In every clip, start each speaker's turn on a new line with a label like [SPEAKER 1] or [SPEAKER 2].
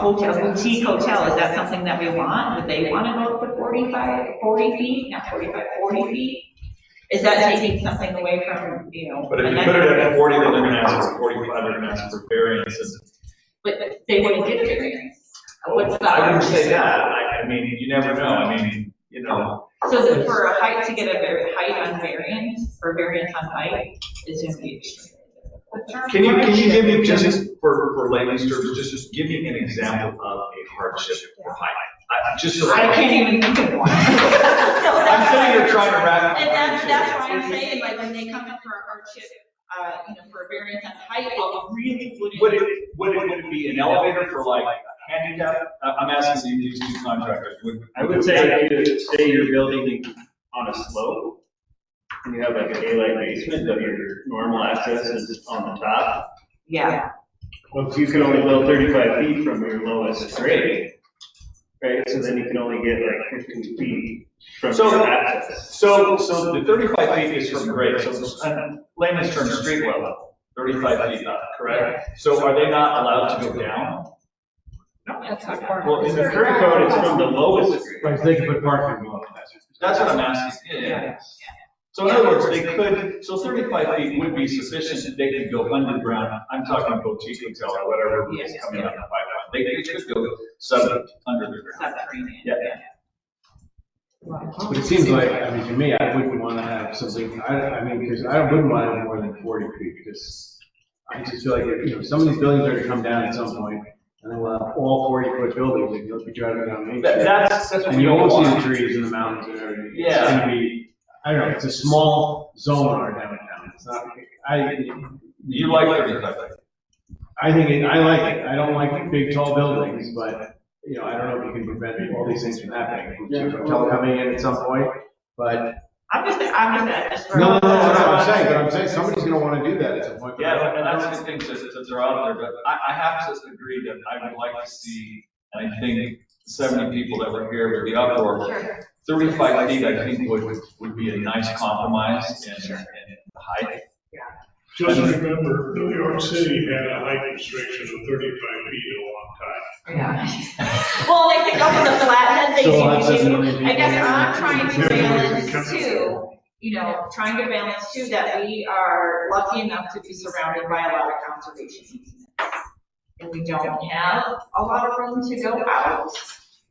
[SPEAKER 1] hotels, boutique hotel, is that something that we want? Would they want to go up to 45, 40 feet, not 45, 40 feet? Is that taking something away from, you know?
[SPEAKER 2] But if you put it at forty, then they're gonna ask for forty-five, they're gonna ask for variances.
[SPEAKER 1] But but they wouldn't get a variance. What's the?
[SPEAKER 2] I wouldn't say that, I, I mean, you never know, I mean, you know,
[SPEAKER 1] So is it for a height to get a var- height on variance, or variance on height, is going to be extreme?
[SPEAKER 2] can you, can you give me, just for, for layman's terms, just, just give me an example of a hardship for height? I, I'm just so.
[SPEAKER 1] I can't even think of one. I'm
[SPEAKER 2] I'm sitting here trying to wrap.
[SPEAKER 1] And that's, that's why I'm saying, like, when they come in for a hardship, uh, you know, for a variance on height, well, we really
[SPEAKER 2] Would
[SPEAKER 1] wouldn't.
[SPEAKER 2] it, would it, would it be an elevator for like handicap? I- I'm asking these two contractors, would.
[SPEAKER 3] I would say, you- say you're building on a slope, and you have like a daylight basement, but your normal access is on the top.
[SPEAKER 1] Yeah,
[SPEAKER 3] Well, you can only build thirty-five feet from your lowest grade, right? So then you can only get like fifteen feet from
[SPEAKER 2] So-
[SPEAKER 3] your access.
[SPEAKER 2] So, so the thirty-five feet is from grade, so in layman's terms, street level, thirty-five feet up, correct? So are they not allowed to go down?
[SPEAKER 1] that's not
[SPEAKER 2] Well, in the
[SPEAKER 3] Current
[SPEAKER 2] current
[SPEAKER 3] code is from the lowest grade.
[SPEAKER 4] Right, so they can put parking on
[SPEAKER 2] That's what I'm asking, yeah, yeah. So in other words, they could, so thirty-five feet would be sufficient, they could go underground, I'm talking boutique hotel or whatever is coming up in the pipeline, they they could go sub, under the ground.
[SPEAKER 1] Subterranean.
[SPEAKER 2] Yeah,
[SPEAKER 4] But it seems like, I mean, to me, I wouldn't want to have something, I, I mean, because I wouldn't want it more than forty feet, because I just feel like, you know, some of these buildings are gonna come down at some point, and then we'll have all forty foot buildings, and you'll be driving down Main
[SPEAKER 2] That-
[SPEAKER 4] Street.
[SPEAKER 2] that's, that's what
[SPEAKER 4] And
[SPEAKER 2] we
[SPEAKER 4] you
[SPEAKER 2] don't
[SPEAKER 4] won't see the
[SPEAKER 2] want.
[SPEAKER 4] trees and the mountains and everything. It's
[SPEAKER 2] Yeah.
[SPEAKER 4] gonna be, I don't know, it's a small zone in our downtown, it's not, I.
[SPEAKER 2] You like thirty-five feet.
[SPEAKER 4] I think, it- I like it, I don't like big tall buildings, but, you know, I don't know if you can prevent all these things from happening. Hotel coming in at some point, but.
[SPEAKER 1] I'm just, I'm just, just. for-
[SPEAKER 4] No, no, no, no, I'm saying, but I'm saying somebody's gonna wanna do that at some point.
[SPEAKER 2] Yeah, and that's the thing, that, that they're out there, but I, I have to agree that I would like to see, and I think seventy people that were here with the uproar,
[SPEAKER 1] Sure.
[SPEAKER 2] thirty-five feet, I think would, would be a nice compromise and, and height.
[SPEAKER 5] Just remember, New York City had a height restriction of thirty-five feet a long time.
[SPEAKER 1] Yeah. Well, they think up in the flathead, they
[SPEAKER 4] So that's just
[SPEAKER 1] do,
[SPEAKER 4] another
[SPEAKER 1] too. I guess I'm trying to
[SPEAKER 5] thing.
[SPEAKER 1] balance too, you know, trying to balance too, that we are lucky enough to be surrounded by a lot of conservation easements. And we don't have a lot of room to go out,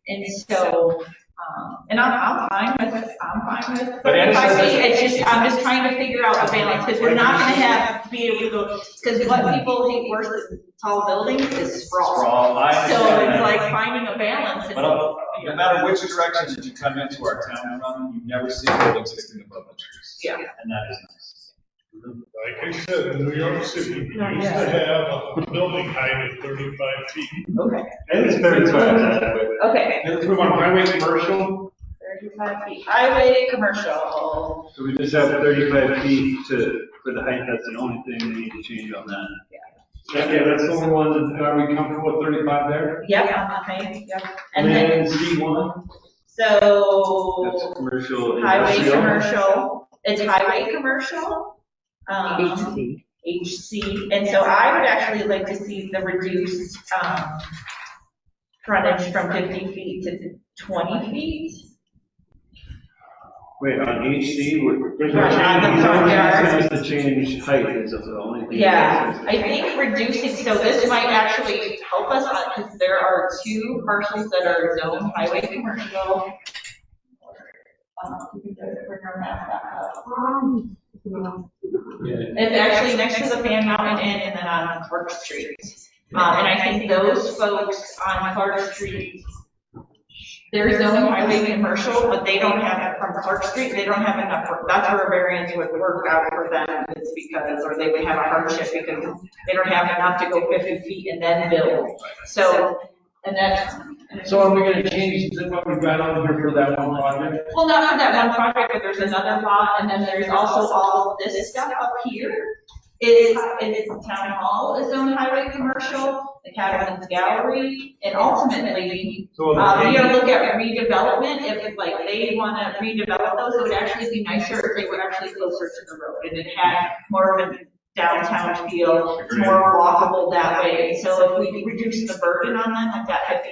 [SPEAKER 1] and so, um, and I'm, I'm fine with, I'm fine with.
[SPEAKER 2] But Anna says-
[SPEAKER 1] I see, It's just, I'm just trying to figure out the balance, because we're not gonna have, be able to go, because what people hate worse than tall buildings is sprawl.
[SPEAKER 2] Sprawl, I
[SPEAKER 1] So
[SPEAKER 2] understand
[SPEAKER 1] it's
[SPEAKER 2] that.
[SPEAKER 1] like finding a balance.
[SPEAKER 2] But I'll- no matter which direction that you come into our town from, you never see buildings sticking above the trees.
[SPEAKER 1] Yeah.
[SPEAKER 2] And that is nice.
[SPEAKER 5] Like I said, New York City used to have a building height of thirty-five feet.
[SPEAKER 1] Okay,
[SPEAKER 3] And it's very
[SPEAKER 1] okay.
[SPEAKER 3] Let's move on, highway commercial,
[SPEAKER 1] Thirty-five feet. Highway commercial.
[SPEAKER 3] so we just have thirty-five feet to, for the height, that's the only thing we need to change on that. Yeah. Yeah, that's the only one, are we comfortable with thirty-five there?
[SPEAKER 1] Yep, okay, yep. And then,
[SPEAKER 3] And C one, that's
[SPEAKER 1] so
[SPEAKER 3] commercial.
[SPEAKER 1] highway
[SPEAKER 3] industrial.
[SPEAKER 1] commercial, it's highway commercial. Um,
[SPEAKER 6] HC.
[SPEAKER 1] HC, and so I would actually like to see the reduced, um, frontage from fifty feet to twenty feet.
[SPEAKER 3] Wait, on HC, we're, we're
[SPEAKER 1] Right, on the
[SPEAKER 3] changing, the
[SPEAKER 1] front
[SPEAKER 3] only
[SPEAKER 1] yard.
[SPEAKER 3] thing is to change height is the only thing.
[SPEAKER 1] Yeah, I think reducing, so this might actually help us, because there are two parcels that are zoned highway commercial. Um, you can go to bring our map back up. um, It's actually next to the Fan Mountain Inn and then on Clark Street. Um, and I think those folks on Clark Street, they're zoned highway commercial, but they don't have, from Clark Street, they don't have enough, that's where a variance would work out for them, is because, or they would have a hardship because they don't have enough to go 50 feet and then build. So, and that's,
[SPEAKER 4] So are we gonna change what we've got on here for that one project?
[SPEAKER 1] well, not for that one project, but there's another lot, and then there's also all this stuff up here. It is, it is town hall is owned highway commercial, the Catamount Gallery, and ultimately,
[SPEAKER 3] So on the
[SPEAKER 1] uh, we
[SPEAKER 3] page-
[SPEAKER 1] gotta look at redevelopment, if like they wanna redevelop those, it would actually be nicer if they were actually closer to the road, and it had more of an downtown feel. It's
[SPEAKER 2] Agreed.
[SPEAKER 1] more walkable that way. So if we reduce the burden on them, like that fifty